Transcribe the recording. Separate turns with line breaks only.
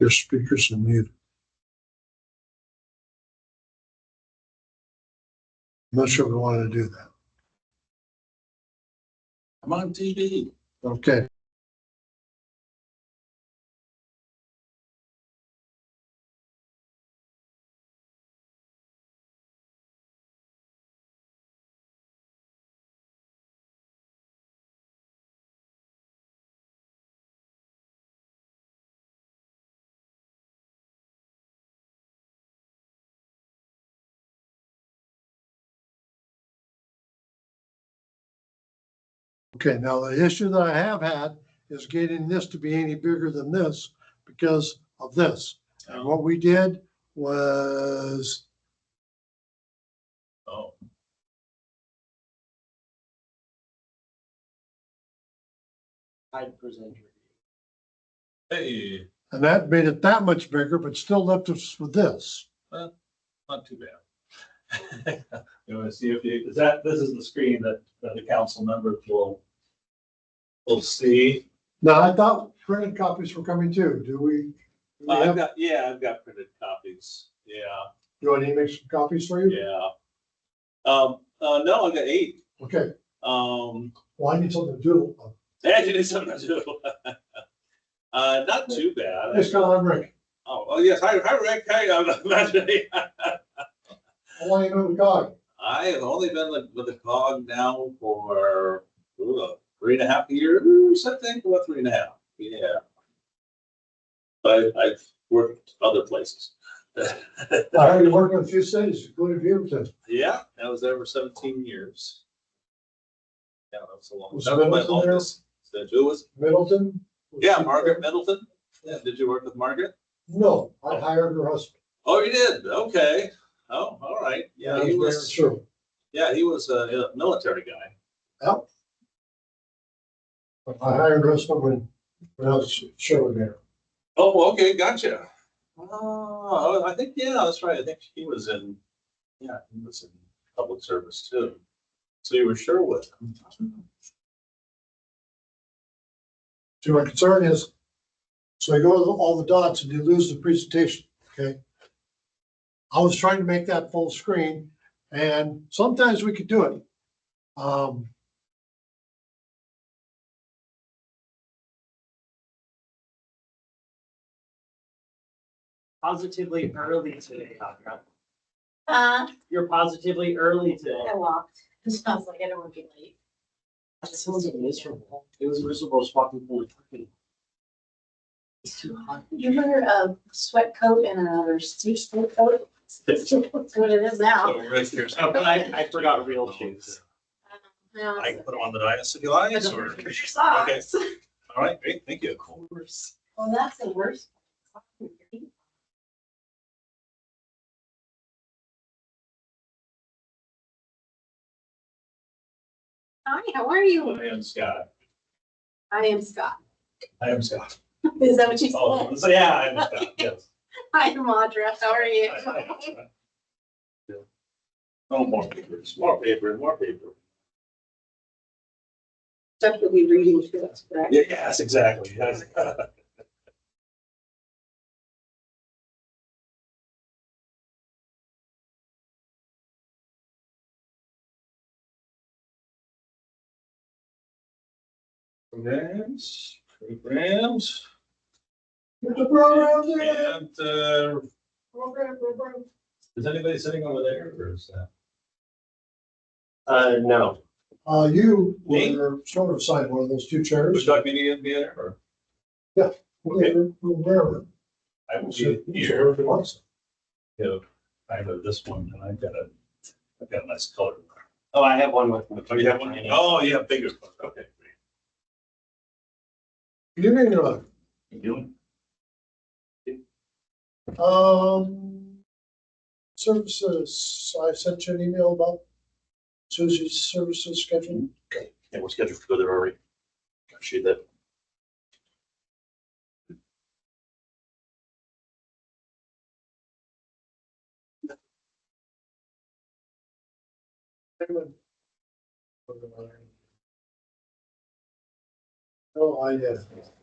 Your speakers are muted. I'm not sure we want to do that.
I'm on TV.
Okay. Okay, now the issue that I have had is getting this to be any bigger than this because of this. And what we did was,
Oh,
I present your.
hey,
and that made it that much bigger, but still left us with this.
not too bad.
You want to see if you, is that, this is the screen that, that the council members will, will see.
Now, I thought printed copies were coming too. Do we? do we
Uh, I've
have-
got, yeah, I've got printed copies. Yeah,
Do I need to make some copies for you?
yeah. Um, uh, no, I've got eight.
Okay,
Um,
well, I need something to do.
actually, it's something to do. Uh, not too bad.
It's kind of Rick.
Oh, oh, yes, hi, hi, Rick. Hi, I'm imagining.
I want you to know the guy.
I have only been like with the cog now for ooh, uh, three and a half years, I think, about three and a half, yeah. I, I've worked other places.
I heard you working in a few cities, including Beaverton.
Yeah, that was there for seventeen years. Yeah, that was a long.
Was
that was my
Middleton there?
longest. Did you, was,
Middleton?
yeah, Margaret Middleton? Yeah, did you work with Margaret?
No, I hired her husband.
Oh, you did, okay. Oh, all right, yeah, he
He
was,
Sure.
yeah, he was a a military guy.
Yep. I hired Russell when, when I was showing there.
Oh, okay, gotcha. Oh, I think, yeah, that's right. I think he was in, yeah, he was in public service too. So you were sure with him.
So my concern is, so I go to all the dots and you lose the presentation, okay? I was trying to make that full screen and sometimes we could do it. Um.
Positively early today, Audra.
Uh,
You're positively early today.
I walked. It sounds like I don't want to be late.
This was miserable. It was miserable just walking from Kentucky. It's too hot.
You wear a sweat coat and another suit sweat coat. That's what it is now. Um,
Oh, but I, I forgot real shoes.
Now
I
it's-
can put him on the dais if you like, or,
Your Socks.
all right, great, thank you.
Well, that's the worst. Hi, how are you?
I am Scott.
I am Scott.
I am Scott.
Is that what you said?
Oh, so yeah, I am Scott, yes.
Hi, I'm Audra. How are you?
I- I am Scott. Yeah. Oh, more papers, more paper, more paper.
Stuff you'll be reading to us, correct?
Yeah, Yes, exactly, yes. Programs, programs,
There's a program there.
and, uh,
Program, program.
is anybody sitting over there or is that?
Uh, no.
Uh, you
Me?
were sort of assigned one of those two
Would
chairs.
you like me to get in there or? okay.
Wherever.
I will
So-
be here.
so it was.
Yeah, I have this one and I've got a, I've got a nice color.
Oh, I have one with.
Oh, you have one? Oh, yeah, bigger. one. Okay, great.
Good evening, uh,
You doing?
Um, services, I sent you an email about Susie's services schedule.
Yeah, we're scheduled to go there already. Got you that.
Oh, I, uh,